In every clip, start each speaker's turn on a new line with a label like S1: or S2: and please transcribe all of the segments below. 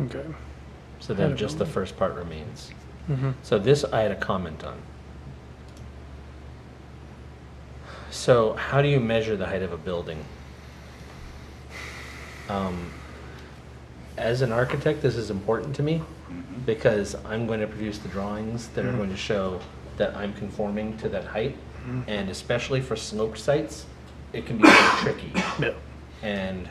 S1: Okay.
S2: So then just the first part remains.
S1: Mm-hmm.
S2: So this I had a comment on. So how do you measure the height of a building? Um, As an architect, this is important to me because I'm going to produce the drawings that are
S1: Mhm.
S2: going to show that I'm conforming to that height. And especially for sloped sites, it can be very tricky.
S1: Yeah.
S2: and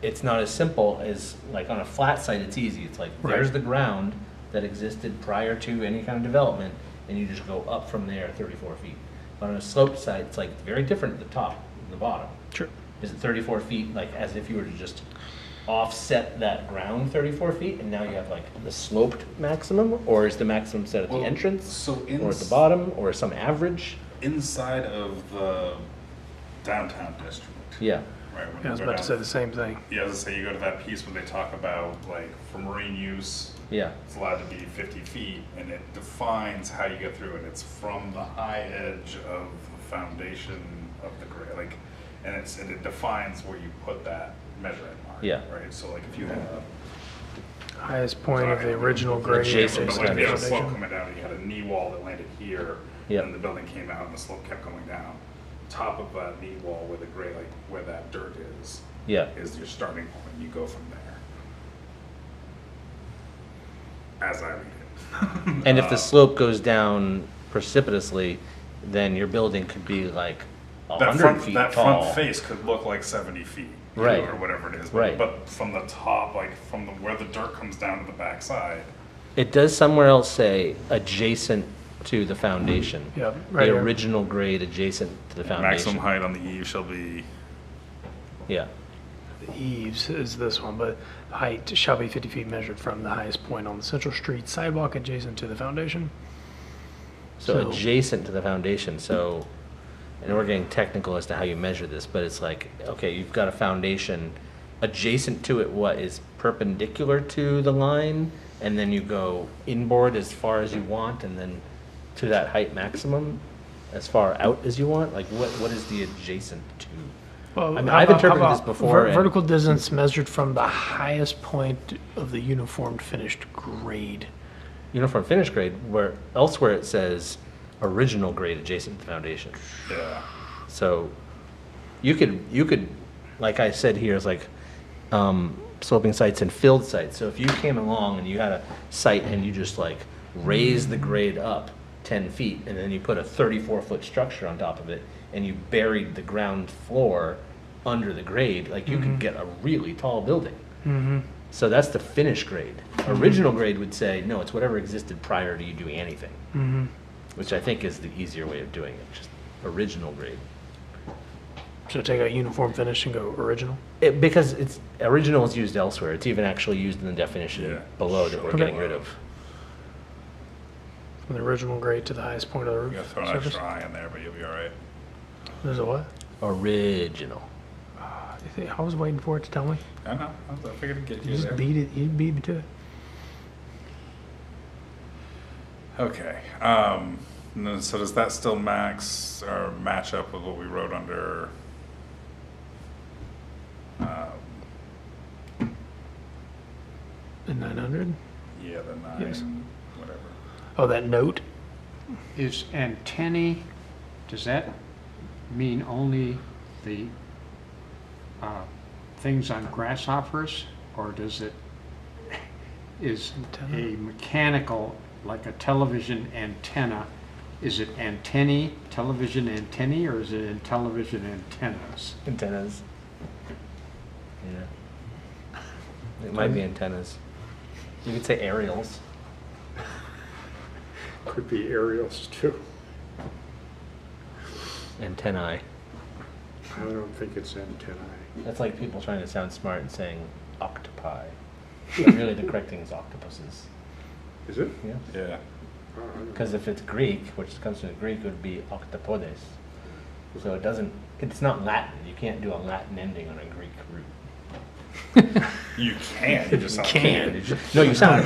S2: it's not as simple as like on a flat site it's easy it's like
S1: Right.
S2: there's the ground that existed prior to any kind of development and you just go up from there 34 feet but on a sloped site it's like very different at the top and the bottom
S1: Sure.
S2: is it 34 feet like as if you were to just offset that ground 34 feet and now you have like the sloped maximum or is the maximum set at
S3: Well,
S2: the entrance
S3: so
S2: or at the
S3: ins-
S2: bottom or some average
S3: Inside of the downtown district.
S2: yeah
S3: Right. when
S1: Yeah, I was
S3: you go
S1: about to
S3: down-
S1: say the same thing.
S3: Yeah, I was gonna say you go to that piece where they talk about like for marine use,
S2: yeah
S3: it's allowed to be fifty feet, and it defines how you get through it. It's from the high edge of the foundation of the gra- like, and it's and it defines where you put that measuring mark.
S2: Yeah.
S3: Right. So like if you had a
S1: Highest point of the original grade.
S2: Adjacent
S3: But
S2: to
S3: like if you had a
S2: foundation.
S3: slope coming down, you had a knee wall that landed here,
S2: Yep.
S3: and the building came out and the slope kept going down. Top of that knee wall where the gray, like where that dirt is,
S2: yeah
S3: is your starting point, and you go from there. As I read it.
S2: And if
S3: Uh,
S2: the slope goes down precipitously, then your building could be like a
S3: That
S2: hundred
S3: front,
S2: feet
S3: that
S2: tall.
S3: front face could look like seventy feet. you know,
S2: Right.
S3: Or whatever it is,
S2: Right.
S3: but, but from the top, like from the, where the dirt comes down to the backside,
S2: It does somewhere else say adjacent to the foundation.
S1: Yeah, right
S2: The
S1: here.
S2: original grade adjacent to the
S3: maximum
S2: foundation.
S3: height on the eave shall be
S2: Yeah,
S1: The eaves is this one, but height shall be 50 feet measured from the highest point on the central street sidewalk adjacent to the foundation.
S2: so
S1: So-
S2: adjacent to the foundation, so, and we're getting technical as to how you measure this, but it's like, okay, you've got a foundation, adjacent to it, what is perpendicular to the line? And then you go inboard as far as you want, and then to that height maximum, as far out as you want? Like, what, what is the adjacent to?
S1: Well,
S2: I mean,
S1: how
S2: I've
S1: about- how
S2: interpreted this
S1: about
S2: before
S1: ver-
S2: and-
S1: Vertical distance measured from the highest point of the uniformed finished grade.
S2: Uniform finish grade, where elsewhere it says original grade adjacent to the foundation.
S3: yeah.
S2: So you could, you could, like I said here, it's like um, sloping sites and filled sites. So if you came along and you had a site and you just like raised the grade up 10 feet and then you put a 34 foot structure on top of it and you buried the ground floor under the grade, like you could get a really tall building. So that's the finish grade. Original grade would say, no, it's whatever existed prior to you doing anything,
S1: Mm-hmm.
S2: which I think is the easier way of doing it, just original grade.
S1: So take out uniform finish and go original.
S2: It, because it's original is used elsewhere. It's even actually used in the definition
S3: Yeah.
S2: below that we're
S3: Okay.
S2: getting rid of.
S1: From the original grade to the highest point of the
S3: You gotta
S1: roof
S3: throw an
S1: surface.
S3: extra eye in there, but you'll be all right.
S1: There's a what?
S2: Original.
S1: I think- I was waiting for it to tell me.
S3: I know. I was- I figured I'd get
S1: You
S3: you
S1: just
S3: there.
S1: beat it. You beat me to it.
S3: Okay. Um, and then- so does that still max or match up with what we wrote under? Um,
S1: The 900.
S3: yeah, E the nine,
S1: Yes.
S3: whatever.
S1: Oh, that note.
S4: Is antennae, does that mean only the uh, things on grasshoppers? Or does it, is
S1: Antenna?
S4: a mechanical, like a television antenna, is it antennae, television antennae, or is it in television antennas?
S2: Antennas. Yeah. It might be antennas. You could say aerials.
S4: Could be aerials too.
S2: Antennae.
S4: I don't think it's antennae.
S2: That's like people trying to sound smart and saying octopi. But really, the correct thing is octopuses.
S4: Is it?
S2: Yeah.
S3: Yeah.
S2: Because if it's Greek, which comes from the Greek, it would be octopodes. So it doesn't. It's not Latin. You can't do a Latin ending on a Greek root.
S3: You can. You just
S1: Can.
S2: No, you sound